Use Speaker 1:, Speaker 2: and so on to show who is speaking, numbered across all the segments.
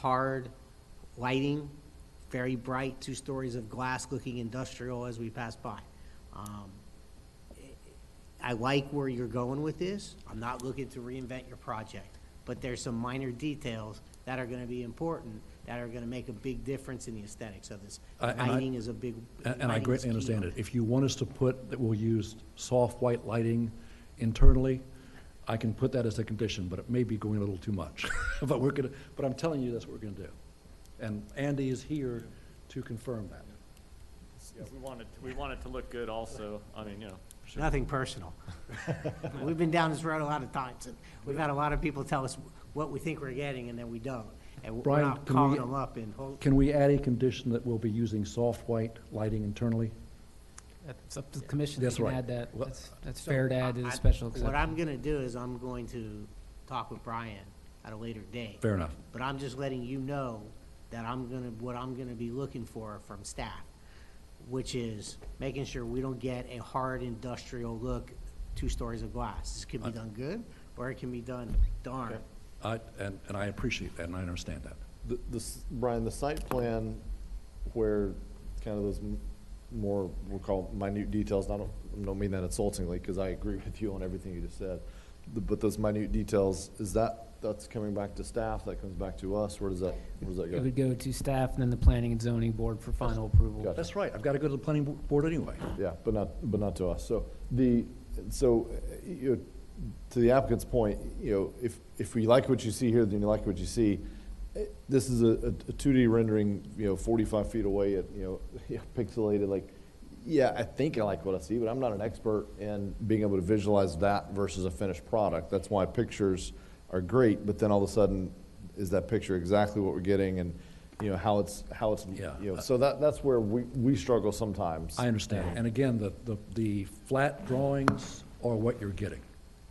Speaker 1: hard lighting, very bright, two stories of glass looking industrial as we pass by. Um, I like where you're going with this. I'm not looking to reinvent your project, but there's some minor details that are gonna be important, that are gonna make a big difference in the aesthetics of this.
Speaker 2: Uh, and I-
Speaker 1: Lighting is a big.
Speaker 2: And and I
Speaker 1: lighting is
Speaker 2: greatly
Speaker 1: key
Speaker 2: understand
Speaker 1: on
Speaker 2: it. If you want us to put that we'll use soft white lighting internally, I can put that as a condition, but it may be going a little too much. But we're gonna, but I'm telling you, that's what we're gonna do. And Andy is here to confirm that.
Speaker 3: Yeah, we want it, we want it to look good also, I mean, you know,
Speaker 1: Nothing personal. We've been down this road a lot of times, and we've had a lot of people tell us what we think we're getting and then we don't. And we're
Speaker 2: Brian,
Speaker 1: not
Speaker 2: can we-
Speaker 1: calling them up and, hold-
Speaker 2: Can we add a condition that we'll be using soft white lighting internally?
Speaker 4: It's up to the commission, they
Speaker 2: That's
Speaker 4: can
Speaker 2: right.
Speaker 4: add that,
Speaker 2: Well-
Speaker 4: that's, that's
Speaker 1: So,
Speaker 4: fair to add to
Speaker 1: I-
Speaker 4: the
Speaker 1: I-
Speaker 4: special
Speaker 1: What
Speaker 4: exception.
Speaker 1: I'm gonna do is I'm going to talk with Brian at a later date.
Speaker 2: Fair enough.
Speaker 1: But I'm just letting you know that I'm gonna, what I'm gonna be looking for from staff, which is making sure we don't get a hard industrial look, two stories of glass. This could be done good, or it can be done darn.
Speaker 2: I- And, and I appreciate that, and I understand that.
Speaker 5: The, the, s- Brian, the site plan where kind of those m- more, we'll call minute details, and I don't, I don't mean that insultingly, because I agree with you on everything you just said. The- But those minute details, is that, that's coming back to staff, that comes back to us, where does that, where does that
Speaker 4: It
Speaker 5: go?
Speaker 4: would go to staff and then the planning and zoning board for final approval.
Speaker 5: Gotcha.
Speaker 2: That's right, I've got to go to the planning bo- board anyway.
Speaker 5: Yeah, but not, but not to us. So the, so, uh, you, know, to the applicant's point, you know, if, if we like what you see here, then you like what you see. Eh, This is a, a two D rendering, you know, forty-five feet away at, you know, pixelated, like, yeah, I think I like what I see, but I'm not an expert in being able to visualize that versus a finished product. That's why pictures are great, but then all of a sudden, is that picture exactly what we're getting and, you know, how it's, how it's,
Speaker 2: Yeah.
Speaker 5: you know, so that, that's where we, we struggle sometimes.
Speaker 2: I understand. And again, the, the, the flat drawings are what you're getting.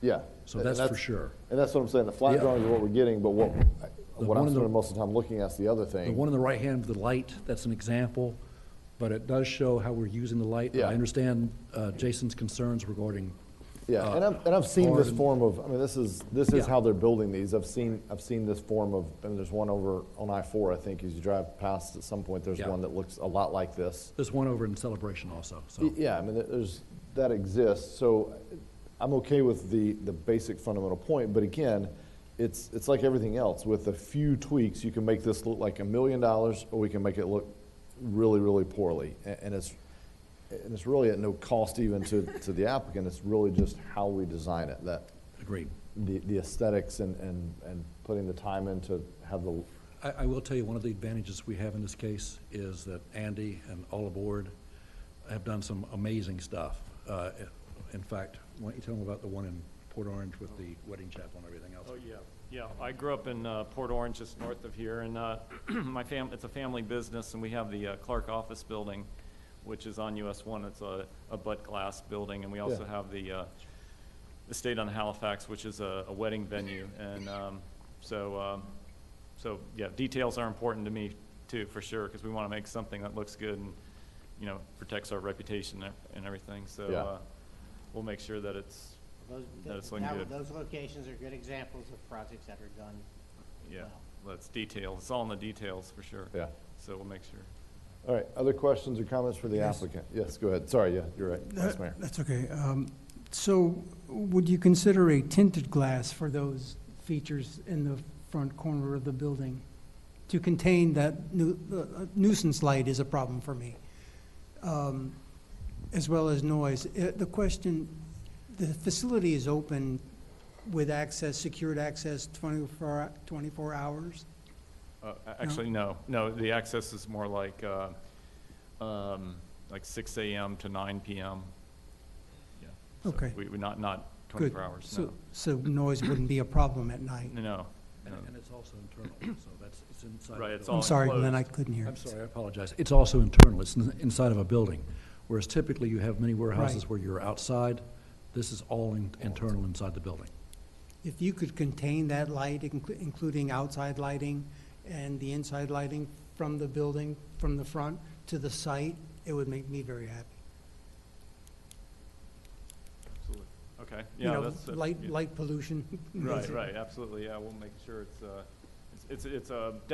Speaker 5: Yeah.
Speaker 2: So
Speaker 5: and
Speaker 2: that's for sure.
Speaker 5: And that's what I'm saying, the flat
Speaker 2: Yeah.
Speaker 5: drawings are what we're getting, but what, what
Speaker 2: one
Speaker 5: I'm
Speaker 2: in the-
Speaker 5: spending most of the time looking at is the other
Speaker 2: The
Speaker 5: thing.
Speaker 2: one on the right hand of the light, that's an example, but it does show how we're using the light.
Speaker 5: Yeah.
Speaker 2: I understand uh, Jason's concerns regarding.
Speaker 5: Yeah,
Speaker 2: uh,
Speaker 5: and I've, and I've seen this
Speaker 2: hard-
Speaker 5: form of, I mean, this is, this is
Speaker 2: Yeah.
Speaker 5: how they're building these. I've seen, I've seen this form of, and there's one over on I-4, I think, as you drive past at some point, there's
Speaker 2: Yeah.
Speaker 5: one that looks a lot like this.
Speaker 2: There's one over in Celebration also,
Speaker 5: Y-
Speaker 2: so.
Speaker 5: Yeah, I mean, there- there's, that exists, so I'm okay with the, the basic fundamental point, but again, it's, it's like everything else, with a few tweaks, you can make this look like a million dollars, or we can make it look really, really poorly, A- and it's, and it's really at no cost even to, to the applicant, it's really just how we design it, that,
Speaker 2: Agreed.
Speaker 5: the, the aesthetics and, and, and putting the time in to have the,
Speaker 2: I, I will tell you, one of the advantages we have in this case is that Andy and all aboard have done some amazing stuff. Uh, In fact, why don't you tell them about the one in Port Orange with the wedding chapel and everything else?
Speaker 3: oh, yeah. Yeah, I grew up in uh, Port Orange, just north of here, and uh, my fam, it's a family business, and we have the uh, Clark Office Building, which is on US One, it's a, a butt glass building, and we also
Speaker 5: Yeah.
Speaker 3: have the, uh, estate on Halifax, which is a, a wedding venue, and, um, so, um, so, yeah, details are important to me too, for sure, because we want to make something that looks good and, you know, protects our reputation and- and everything, so,
Speaker 5: Yeah.
Speaker 3: uh, we'll make sure that it's,
Speaker 1: Those-
Speaker 3: That it's looking
Speaker 1: that-
Speaker 3: good.
Speaker 1: Those locations are good examples of projects that are done.
Speaker 3: Yeah,
Speaker 1: well.
Speaker 3: well, it's details, it's all in the details, for sure.
Speaker 5: yeah.
Speaker 3: So we'll make sure.
Speaker 5: All right, other questions or comments for the
Speaker 6: Yes.
Speaker 5: applicant? Yes, go ahead, sorry, yeah, you're right, Vice
Speaker 6: That-
Speaker 5: Mayor.
Speaker 6: That's okay. Um, So would you consider a tinted glass for those features in the front corner of the building? To contain that nu- uh, nuisance light is a problem for me, um, as well as noise. Uh, The question, the facility is open with access, secured access 24 hou- 24 hours?
Speaker 3: Uh, a- Actually, no, no, the access is more like, uh, um, like six AM to nine PM. Yeah. So
Speaker 6: Okay.
Speaker 3: We, we not, not
Speaker 6: Good.
Speaker 3: twenty-four hours,
Speaker 6: So-
Speaker 3: no.
Speaker 6: So noise wouldn't be a problem at night?
Speaker 3: No, No,
Speaker 2: And
Speaker 3: no.
Speaker 2: and it's also internal, so that's, it's inside. the
Speaker 3: Right, it's
Speaker 2: building.
Speaker 3: all
Speaker 6: I'm sorry, Glenn, I
Speaker 3: enclosed.
Speaker 6: couldn't hear.
Speaker 2: I'm sorry, I apologize. It's also internal, it's in- inside of a building, whereas typically you have many warehouses
Speaker 6: Right.
Speaker 2: where you're outside. This is all in- internal inside the building.
Speaker 6: If you could contain that light, inclu- including outside lighting and the inside lighting from the building, from the front to the site, it would make me very happy.
Speaker 3: Absolutely. Okay,
Speaker 6: You
Speaker 3: yeah,
Speaker 6: know,
Speaker 3: that's. that's-
Speaker 6: Light,
Speaker 3: yeah.
Speaker 6: light pollution.
Speaker 3: Right,
Speaker 6: basically.
Speaker 3: right, absolutely, yeah, we'll make sure it's, uh, it's, it's, it's a